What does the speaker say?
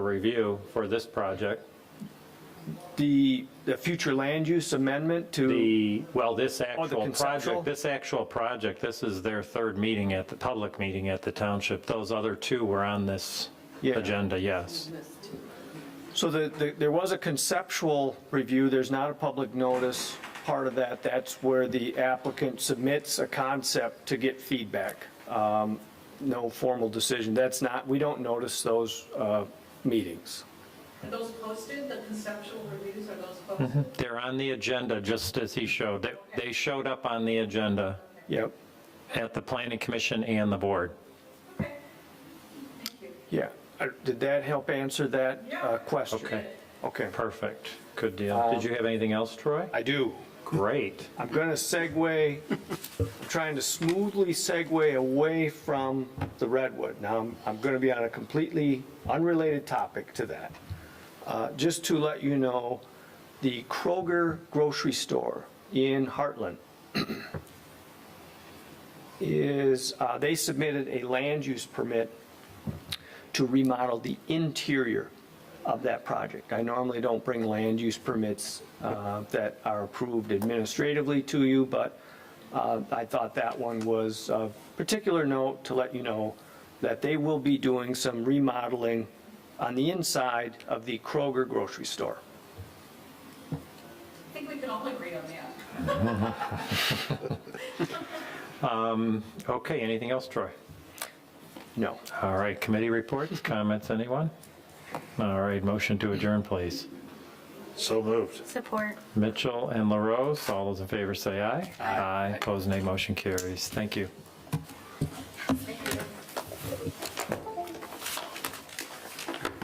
review for this project. The, the future land use amendment to, The, well, this actual Oh, conceptual? project, this actual project, this is their third meeting at the, public meeting at the township. Those other two were on this Yeah. agenda, yes. so the, the- there was a conceptual review, there's not a public notice part of that. That's where the applicant submits a concept to get feedback. Um, No formal decision. That's not, we don't notice those uh, meetings. Are those posted, the conceptual reviews, are those posted? They're on the agenda, just as he showed. They- They showed up on the agenda Yep, at the planning commission and the board. Okay. Thank you. yeah. Uh, Did that help answer that uh, Yeah. question? Okay. Okay, Perfect. Good deal. Did you have anything else, Troy? I do. Great. I'm going to segue, I'm trying to smoothly segue away from the redwood. Now, I'm, I'm going to be on a completely unrelated topic to that. Uh, Just to let you know, the Kroger grocery store in Heartland is, uh, they submitted a land use permit to remodel the interior of that project. I normally don't bring land use permits uh, that are approved administratively to you, but uh, I thought that one was of particular note to let you know that they will be doing some remodeling on the inside of the Kroger grocery store. I think we can all agree on that. Okay, anything else, Troy? No. All right, committee reports, comments, anyone? All right, motion to adjourn, please. So moved. Support. Mitchell and LaRose, all those in favor say aye. Aye. Opposed, nay. Motion carries. Thank you.